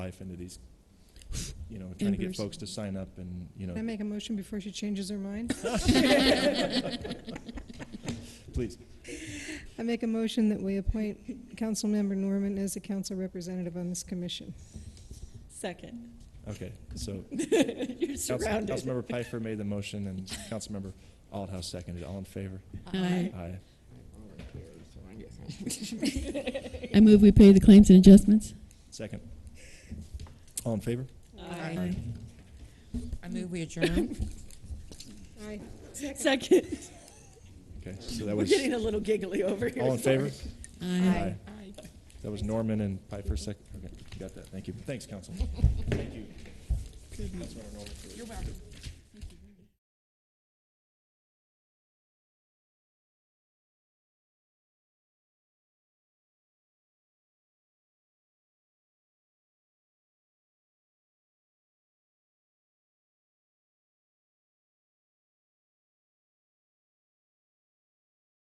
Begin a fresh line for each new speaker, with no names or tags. life into these, you know, trying to get
Embers.
folks to sign up and, you
Can I
know,
make a motion before she changes her mind?
please.
I make a motion that we appoint Councilmember Norman as a council representative on this commission.
Second.
Okay, so
You're
Council-
surrounded.
Councilmember Piper made the motion and Councilmember Aldhouse seconded. All in favor?
Aye.
Aye.
I move we pay the claims and adjustments.
Second. All in favor?
Aye.
I move we adjourn.
Aye.
Second.
Okay, so that
We're
was,
getting a little giggly over here.
all in favor?
Aye.
Aye. That was Norman and Piper sec, okay, you got that. Thank you. Thanks, council. Thank you. Councilmember Norman.
You're welcome.